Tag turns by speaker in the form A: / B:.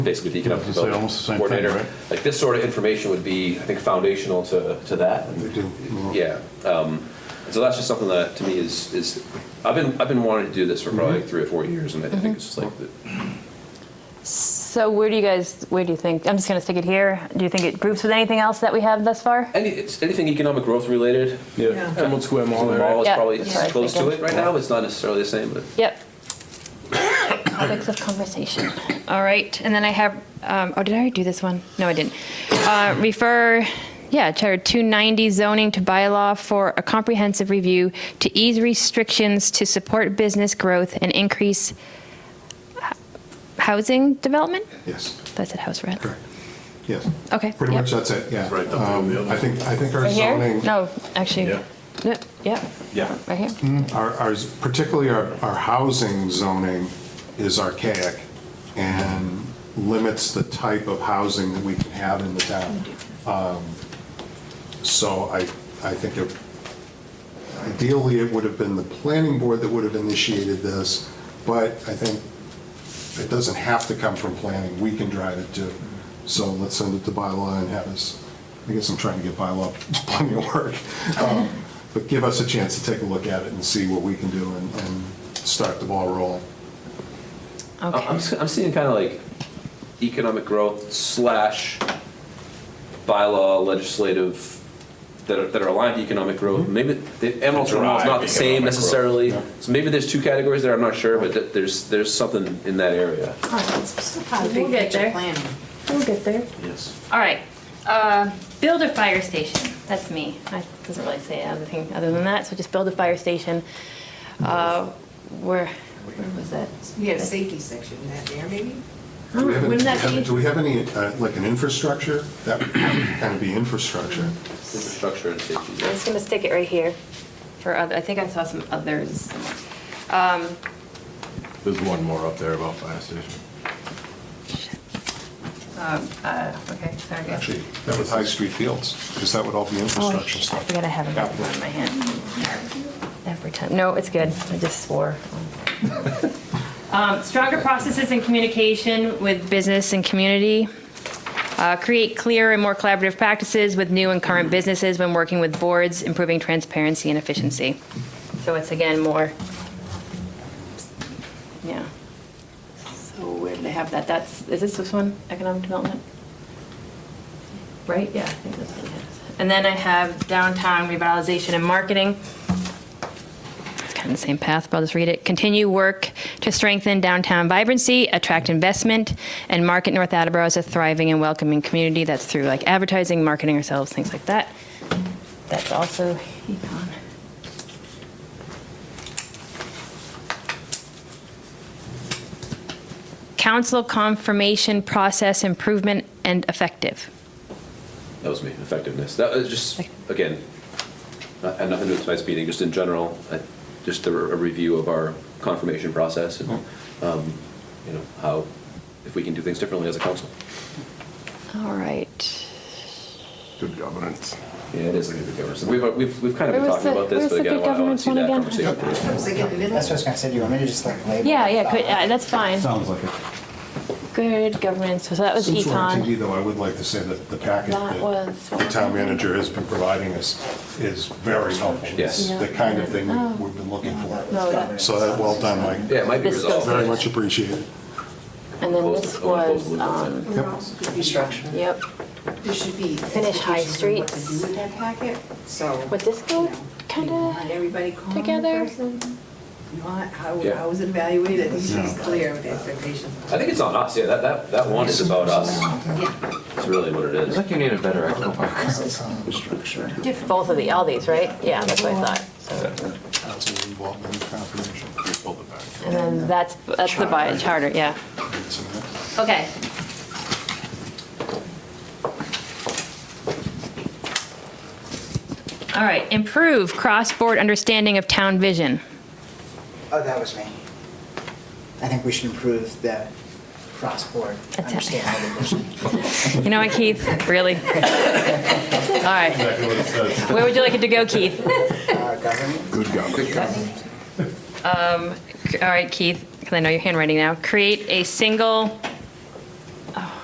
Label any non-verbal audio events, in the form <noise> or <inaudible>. A: basically the economic
B: It's like
A: development
B: almost the same thing,
A: coordinator.
B: right?
A: Like this sort of information would be, I think, foundational to, to that.
B: They do.
A: Yeah. Um, so that's just something that to me is is I've been I've been wanting to do this for probably like three or four years, and I
C: Mm-hmm.
A: think it's just like the,
C: So where do you guys, where do you think, I'm just going to stick it here. Do you think it groups with anything else that we have thus far?
A: any it's anything economic growth related.
D: Yeah.
E: Yeah, Emerald Square Mall,
A: The
E: right?
A: mall is
C: Yeah,
A: probably
C: that's
A: it's
C: what I was
A: close to it
C: thinking.
A: right now. It's not necessarily the same, but
C: Yep. Topics of conversation. All right, and then I have, um, oh, did I already do this one? No, I didn't. Uh, Refer, yeah, Charter 290 zoning to bylaw for a comprehensive review to ease restrictions to support business growth and increase h- housing development?
F: Yes,
C: That's at house rent.
F: correct. Yes.
C: Okay,
F: Pretty
C: yep.
F: much that's it, yeah.
D: Right up there on the
F: Um,
D: other
F: I think, I think our
C: Right here?
F: zoning,
C: No, actually,
D: Yeah.
C: no, yeah,
D: Yeah.
C: right here.
F: our, our- particularly our, our housing zoning is archaic and limits the type of housing that we can have in the town. Um, So I, I think it- ideally, it would have been the planning board that would have initiated this, but I think it doesn't have to come from planning, we can drive it too. So let's send it to bylaw and have us, I guess I'm trying to get bylaw <laughs> plenty of work. Um, But give us a chance to take a look at it and see what we can do and, and start the ball rolling.
C: Okay.
A: I- I'm s- I'm seeing kind of like economic growth slash bylaw legislative that are, that are aligned to economic growth. Maybe the Emerald Terminal is
D: Drive
A: not the
D: economic
A: same
D: growth,
A: necessarily. So maybe there's two categories there. I'm not sure, but th- there's there's something in that area.
C: We'll
G: Big
C: get
G: picture
C: there.
G: planning.
C: We'll get there.
A: Yes.
C: All right, uh, build a fire station, that's me. I doesn't really say anything other than that, so just build a fire station. Uh, Where, where was that?
G: We have a safety section in that there, maybe?
F: Do we have any-
C: Wouldn't that
F: do we have-
C: be-
F: Do we have any, uh, like an infrastructure? That would kind of be infrastructure.
A: Infrastructure and safety.
C: I'm
A: yeah.
C: just gonna stick it right here for other, I think I saw some others. Um,
D: There's one more up there about fire station.
C: um, uh, Okay, sorry. guys.
F: Actually, that was High Street Fields, because that would all be
C: Oh, I
F: infrastructure
C: I
F: stuff.
C: forget I have a
F: Yeah.
C: map in my hand. Every time, no, it's good, I just swore. <laughs> Um, Stronger processes and communication with business and community. Uh, Create clear and more collaborative practices with new and current businesses when working with boards, improving transparency and efficiency. So it's again more, yeah. So where did I have that? That's, is this this one, economic development? Right, yeah, I think that's what it is. And then I have downtown revitalization and marketing. It's kind of the same path, but I'll just read it. Continue work to strengthen downtown vibrancy, attract investment, and market North Attleboro as a thriving and welcoming community. That's through like advertising, marketing ourselves, things like that. That's also econ. Council confirmation process improvement and effective.
A: That was me. Effectiveness. That was just again, not, had nothing to do with tonight's meeting. Just in general, I, just a, re- a review of our confirmation process and um, you know how if we can do things differently as a council.
C: All right.
D: Good governance.
A: Yeah, it is a good governance. We've, we've, we've kind of been
C: Where was
A: talking
C: the-
A: about this,
C: where's
A: but
C: the
A: again, I
C: good
A: want I want to
C: governance
A: see
C: one
A: that
C: again?
A: conversation.
G: Was it in the middle?
H: That's what I was gonna say, do you want me to just like label?
C: Yeah,
H: it?
C: yeah, good, uh, that's fine.
B: Sounds like it.
C: Good governance, so that was
F: Since we're on TV,
C: econ.
F: though, I would like to say that the packet
C: That
F: that
C: was-
F: the town manager has been providing us is very helpful.
A: Yes.
F: It's The kind of thing we- we've been looking
C: Oh. No,
F: for.
C: that-
F: So that, well done, Mike.
A: Yeah, it might be
C: This
A: resolved.
F: Very much appreciated.
C: And then
A: Close-
C: this
A: I wanna close
C: was,
A: the loop on
C: um,
A: that.
G: There also could be-
H: Construction.
C: yep,
G: There should be.
C: Finish High
G: expectations on What to
C: Streets.
G: do with that packet, so.
C: Would this go
G: you know,
C: kinda
G: want everybody calm
C: together?
G: first and You want, how,
A: Yeah.
G: how was it evaluated? I think she's clear with the expectations.
A: I think it's on us, yeah, that, that, that one is
C: um,
A: about us.
G: Yeah.
A: It's really what it is.
E: you need a better echo box.
H: Infrastructure.
C: both of the, all these, right? Yeah, that's what I thought. So-
F: Council involvement and confirmation. Pull it back.
C: And then that's, that's the by charter, yeah.
F: It's in there.
C: Okay. All right, improve cross-board understanding of town vision.
H: Oh, that was me. I think we should improve the cross-board
C: it.
H: understanding of the
C: <laughs>
H: vision.
C: You know what, Keith?
B: <laughs>
C: Really? All right. Where would you like it to go, Keith?
H: Uh, Government,
D: Good governance.
C: All right, Keith, because I know your handwriting now. Create a single Oh.